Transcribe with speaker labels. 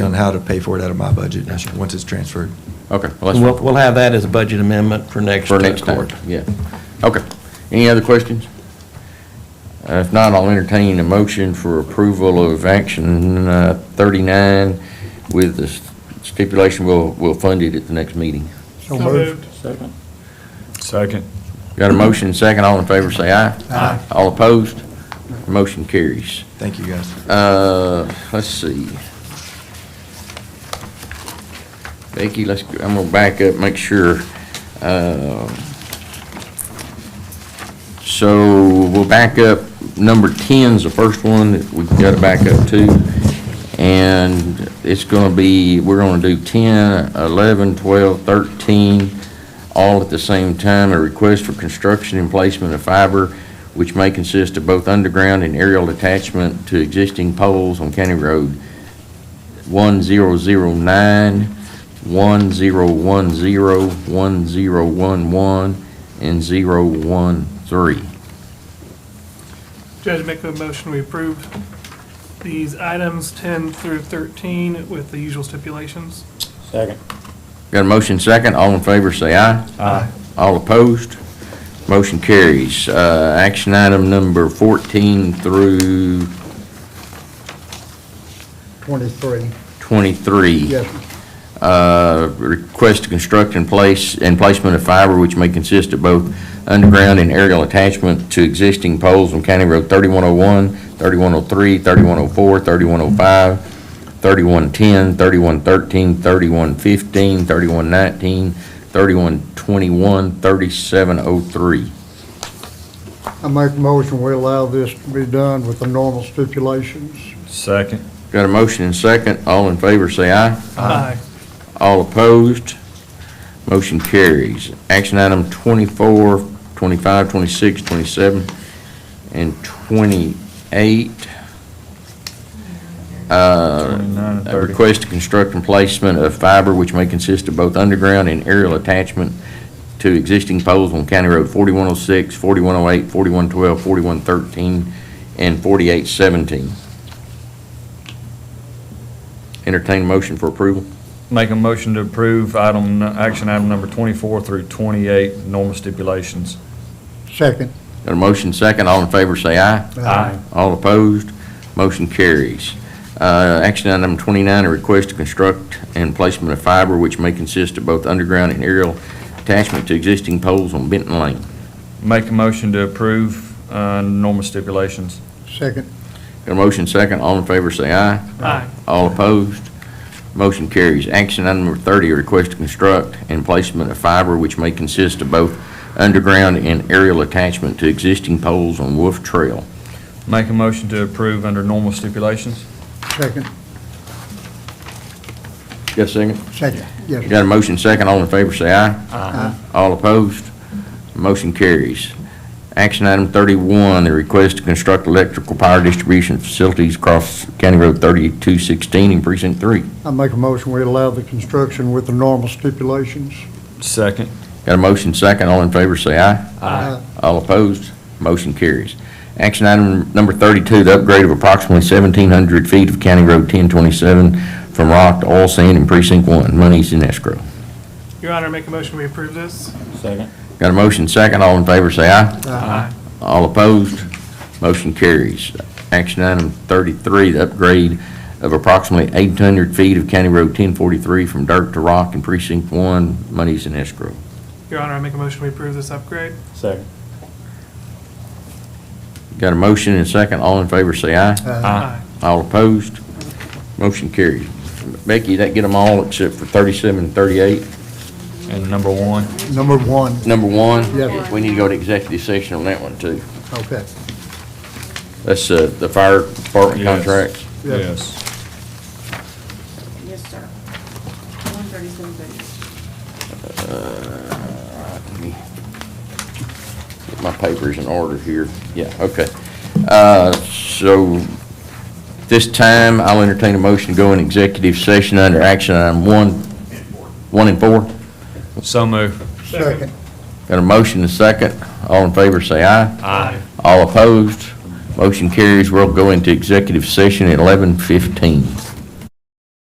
Speaker 1: on how to pay for it out of my budget, once it's transferred.
Speaker 2: Okay, well,
Speaker 3: We'll,
Speaker 2: that's
Speaker 3: we'll have that as a budget amendment for next
Speaker 2: for
Speaker 3: uh,
Speaker 2: next time,
Speaker 3: court.
Speaker 2: yeah. Okay, any other questions? Uh, If not, I'll entertain a motion for approval of action uh, 39 with the stipulation we'll, we'll fund it at the next meeting.
Speaker 4: So moved.
Speaker 5: Second.
Speaker 2: Got a motion and second, all in favor say aye.
Speaker 4: Aye.
Speaker 2: All opposed? Motion carries.
Speaker 1: Thank you, guys.
Speaker 2: Uh, let's see. Becky, let's, I'm gonna back up, make sure. Uh, So we'll back up, number 10's the first one that we've got to back up to. And it's gonna be, we're gonna do 10, 11, 12, 13, all at the same time. A request for construction and placement of fiber which may consist of both underground and aerial attachment to existing poles on County Road 1009, 1010, 1011, and 013.
Speaker 4: Judge, make a motion, we approve these items 10 through 13 with the usual stipulations.
Speaker 5: Second.
Speaker 2: Got a motion second, all in favor say aye.
Speaker 5: Aye.
Speaker 2: All opposed, motion carries. Uh, Action item number 14 through
Speaker 6: 23,
Speaker 2: 23.
Speaker 6: yes,
Speaker 2: uh, request to construct and place, and placement of fiber which may consist of both underground and aerial attachment to existing poles on County Road 3101, 3103, 3104, 3105, 3110, 3113, 3115, 3119, 3121, 3703.
Speaker 6: I make a motion, we allow this to be done with the normal stipulations.
Speaker 5: Second.
Speaker 2: Got a motion and second. All in favor, say aye.
Speaker 4: Aye.
Speaker 2: All opposed? Motion carries. Action item 24, 25, 26, 27, and 28. Uh,
Speaker 5: 29 and
Speaker 2: a
Speaker 5: 30.
Speaker 2: Request to construct and placement of fiber which may consist of both underground and aerial attachment to existing poles on County Road 4106, 4108, 4112, 4113, and 4817. Entertain a motion for approval.
Speaker 5: Make a motion to approve item, action item number 24 through 28, normal stipulations.
Speaker 6: Second.
Speaker 2: Got a motion second, all in favor say aye. All opposed, motion carries. Uh, Action item 29, a request to construct and placement of fiber which may consist of both underground and aerial attachment to existing poles on Benton Lane.
Speaker 5: Make a motion to approve, uh, normal stipulations.
Speaker 6: Second,
Speaker 2: Got a motion second, all in favor say aye.
Speaker 4: Aye.
Speaker 2: All opposed, motion carries. Action item number 30, a request to construct and placement of fiber which may consist of both underground and aerial attachment to existing poles on Wolf Trail.
Speaker 5: Make a motion to approve under normal stipulations.
Speaker 6: second,
Speaker 2: Got a second?
Speaker 6: second, yes.
Speaker 2: Got a motion second, all in favor say aye.
Speaker 6: Aye.
Speaker 2: All opposed, motion carries. Action item 31, the request to construct electrical power distribution facilities across County Road 3216 in Precinct 3.
Speaker 6: I make a motion, we allow the construction with the normal stipulations.
Speaker 5: Second.
Speaker 2: Got a motion second, all in favor say aye.
Speaker 6: Aye.
Speaker 2: All opposed, motion carries. Action item number 32, the upgrade of approximately 1,700 feet of County Road 1027 from rock to oil sand in Precinct 1. Money's in escrow.
Speaker 4: Your Honor, make a motion, we approve this.
Speaker 5: Second.
Speaker 2: Got a motion second, all in favor say aye.
Speaker 4: Aye.
Speaker 2: All opposed, motion carries. Action item 33, the upgrade of approximately 800 feet of County Road 1043 from dirt to rock in Precinct 1, monies in escrow.
Speaker 4: Your Honor, I make a motion, we approve this upgrade.
Speaker 5: Second.
Speaker 2: Got a motion and a second, all in favor say aye.
Speaker 4: Aye.
Speaker 2: All opposed, motion carries. Becky, that get them all except for 37 and 38.
Speaker 5: And number one.
Speaker 6: Number one,
Speaker 2: Number one?
Speaker 6: Yes.
Speaker 2: We need to go to executive session on that one, too.
Speaker 6: okay.
Speaker 2: That's uh, the fire department
Speaker 5: Yes.
Speaker 2: contracts.
Speaker 6: Yes.
Speaker 7: Yes, sir. One thirty-seven thirty.
Speaker 2: Uh, Let me Get my papers in order here. Yeah, okay. Uh, So this time, I'll entertain a motion to go in executive session under action item one, one and four.
Speaker 5: So move.
Speaker 6: Second,
Speaker 2: Got a motion and a second. All in favor, say aye.
Speaker 5: Aye.
Speaker 2: All opposed, motion carries. We'll go into executive session at 11:15.